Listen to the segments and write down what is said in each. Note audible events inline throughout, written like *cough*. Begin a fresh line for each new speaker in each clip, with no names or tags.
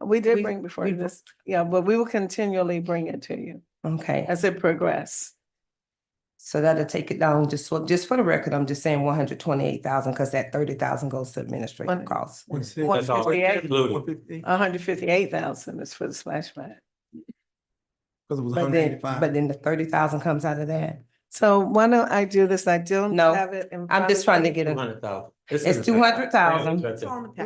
We did
We-
bring before
we
you
br-
this, yeah, but we will continually bring it to you
Okay,
as it progress.
so that'll take it down, just for, just for the record, I'm just saying one hundred twenty-eight thousand, because that thirty thousand goes to administrative
One-
costs.
That's all
included.
Uh,
hundred fifty-eight thousand is for the splash pad.
Cause it was
But
hundred
then,
eighty-five.
but then the thirty thousand comes out of that.
So why don't I do this? I don't
No,
have it in.
I'm just
front
trying
of
to
me.
get a,
Hundred thousand.
It's 200,000.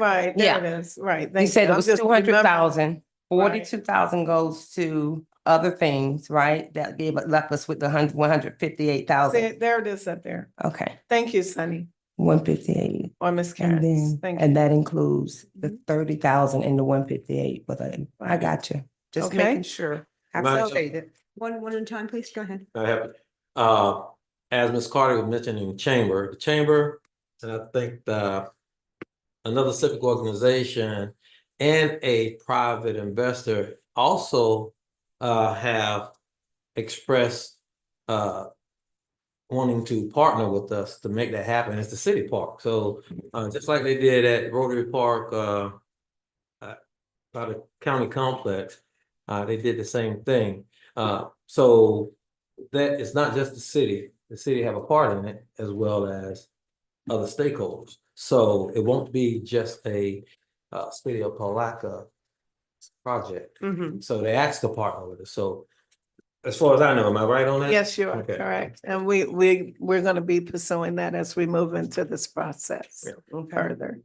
Right, there it is, right.
you
thank
said it
I'm
was
just
two hundred
remembering.
thousand,
Right.
forty-two thousand goes to other things, right? That gave, left us with the hun- one hundred fifty-eight
See,
thousand.
There it is up there.
Okay,
Thank you, Sunny,
one fifty-eight.
or Miss
And
Karen.
then,
Thank
and
you. Mm-hmm.
that includes the thirty thousand and the one fifty-eight, but I, I
Right.
got you. Just
Okay.
making sure. I
Mine's-
appreciate it.
One, one at a time, please, go ahead.
I have, uh, as Ms. Carter was mentioning, the chamber, the chamber, and I think the another civic organization and a private investor also uh have expressed uh wanting to partner with us to make that happen. It's the city park. So uh just like they did at Rotary Park uh uh, by the county complex, uh they did the same thing. Uh so that it's not just the city, the city have a part in it as well as other stakeholders. So it won't be just a uh city of Palaca project.
Mhm.
So they asked to partner with us. So as far as I know, am I right on that?
Yes, you are
Okay.
correct. And we, we, we're going to be pursuing that as we move into this process
Yeah.
further.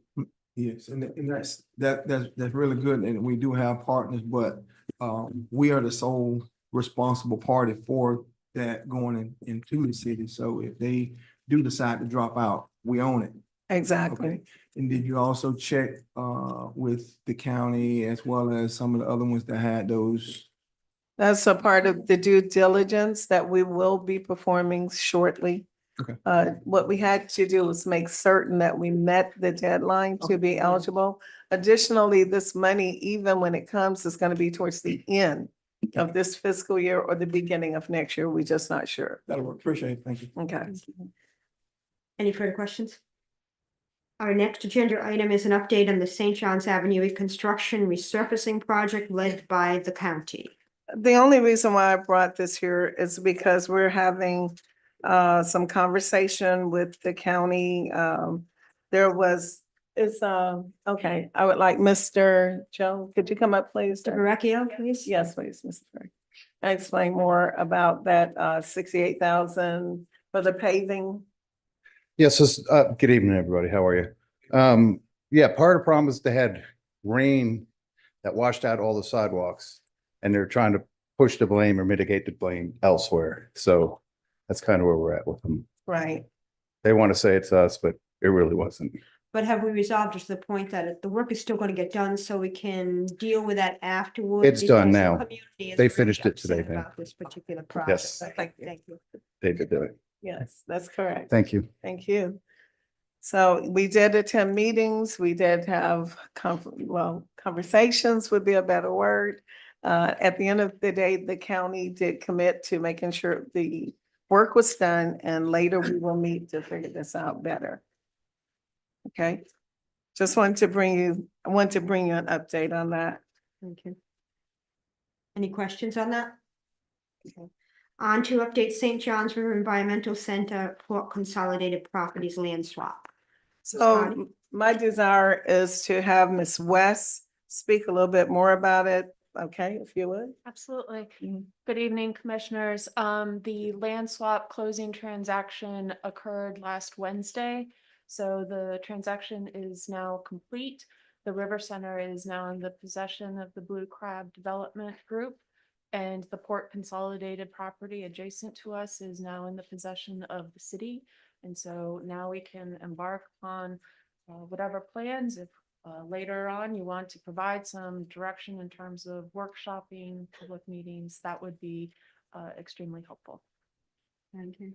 Yes, and, and that's, that, that's, that's really good, and we do have partners, but, um, we are the sole responsible party for that going in, into the city, so if they do decide to drop out, we own it.
Exactly.
And did you also check, uh, with the county as well as some of the other ones that had those?
That's a part of the due diligence that we will be performing shortly.
Okay.
Uh, what we had to do was make certain that we met the deadline to be eligible. Additionally, this money, even when it comes, is going to be towards the end of this fiscal year or the beginning of next year. We're just not sure.
That'll work, appreciate it, thank you.
Okay.
Any further questions? Our next agenda item is an update on the St. John's Avenue Construction Resurfacing Project led by the county.
The only reason why I brought this here is because we're having uh some conversation with the county. Um, there was, it's um, okay, I would like Mr. Joe, could you come up, please?
Mr.
sir?
Verrecchio, please?
Yes, please, Mr. Perry. And Explain more about that uh sixty-eight thousand for the paving.
Yes, this- uh, good evening, everybody. How are you? Um, yeah, part of the problem is they had rain that washed out all the sidewalks and they're trying to push the blame or mitigate the blame elsewhere. So that's kind of where we're at with them.
Right.
They want to say it's us, but it really wasn't.
But have we resolved it to the point that it- the work is still going to get done so we can deal with that afterwards?
It's done
Because the
now.
community is
They
really
finished it today,
upset
ma'am.
About this particular project.
Yes,
Thank you.
Thank you.
they did do it.
Yes, that's correct.
Thank you.
Thank you. So we did attend meetings, we did have, con- well, conversations would be a better word. Uh, At the end of the day, the county did commit to making sure the work was done and later we will meet to figure this out better. Okay, just wanted to bring you, I want to bring you an update on that.
Thank you. Any questions on that? Okay. On to update St. John's River Environmental Center Port Consolidated Properties Land Swap.
So
Scotty?
m- my desire is to have Ms. West speak a little bit more about it, okay, if you would.
Absolutely.
Mhm.
Good evening, Commissioners. Um, the land swap closing transaction occurred last Wednesday. So the transaction is now complete. The River Center is now in the possession of the Blue Crab Development Group. And the port consolidated property adjacent to us is now in the possession of the city. And so now we can embark on uh, whatever plans, if uh, later on, you want to provide some direction in terms of workshopping, public meetings, that would be uh, extremely helpful. *laughs*
Thank you.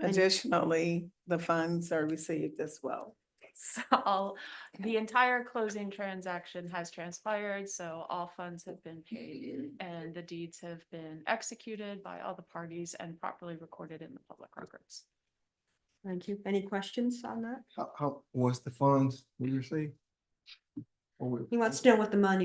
And-
Additionally, the funds are received as well.
So all, the entire closing transaction has transpired, so all funds have been paid and the deeds have been executed by all the parties and properly recorded in the public records.
Thank you. Any questions on that?
How, how, was the funds we received? Or we-
He wants to know what the money